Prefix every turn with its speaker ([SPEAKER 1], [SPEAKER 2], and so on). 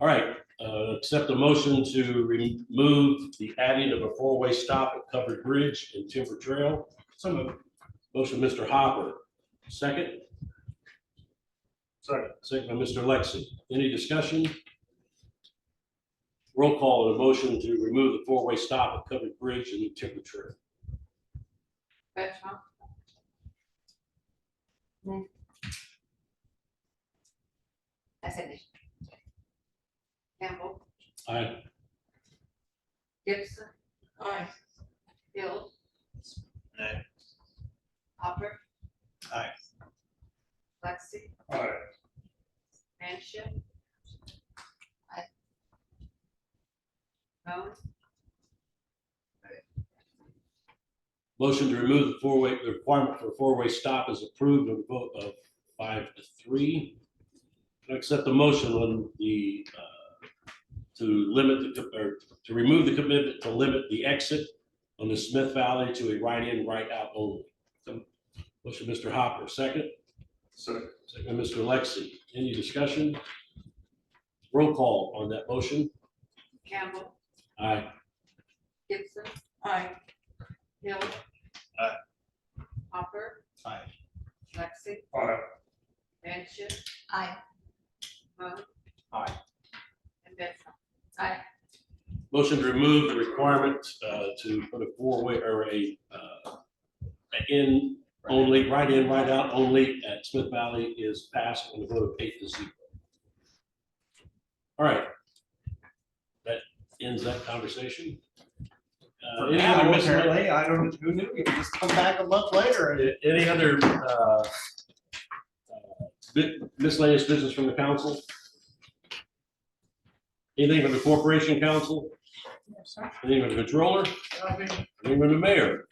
[SPEAKER 1] All right, uh, accept a motion to remove the adding of a four-way stop at Covered Bridge and Timber Trail. Some of, motion Mr. Hopper, second? Second. Second by Mr. Lexi. Any discussion? Roll call on a motion to remove the four-way stop at Covered Bridge and Timber Trail.
[SPEAKER 2] Betcha. Essendon. Campbell,
[SPEAKER 1] Aye.
[SPEAKER 2] Gibson. Aye. Hill.
[SPEAKER 3] Aye.
[SPEAKER 2] Hopper.
[SPEAKER 3] Aye.
[SPEAKER 2] Lexi,
[SPEAKER 3] Aye.
[SPEAKER 2] Manship. Aye. Moan,
[SPEAKER 1] Motion to remove the four-way, the requirement for a four-way stop is approved with a vote of five to three. Can I accept the motion on the, uh, to limit the, co- or to remove the commitment to limit the exit on the Smith Valley to a right-in, right-out only. So, Motion, Mr. Hopper, second.
[SPEAKER 3] Second.
[SPEAKER 1] Second, Mr. Lexi. Any discussion? Roll call on that motion.
[SPEAKER 2] Campbell,
[SPEAKER 1] Aye.
[SPEAKER 2] Gibson. Aye. Hill.
[SPEAKER 3] Aye.
[SPEAKER 2] Hopper,
[SPEAKER 3] Aye.
[SPEAKER 2] Lexi.
[SPEAKER 3] Aye.
[SPEAKER 2] Manship. Aye. Moon.
[SPEAKER 3] Aye.
[SPEAKER 2] And Benson. Aye.
[SPEAKER 1] Motion to remove the requirement uh, to put a four-way or a uh, an in only, right in, right out only at Smith Valley is passed on a vote of eight to zero. All right. That ends that conversation. Uh, Any
[SPEAKER 3] Yeah,
[SPEAKER 1] other miscellaneous,
[SPEAKER 3] apparently, I don't, who knew, you just come back a month later and.
[SPEAKER 1] any other uh, uh, bit- miscellaneous business from the council? Anything from the corporation council? Anything from the controller? Anything from the mayor?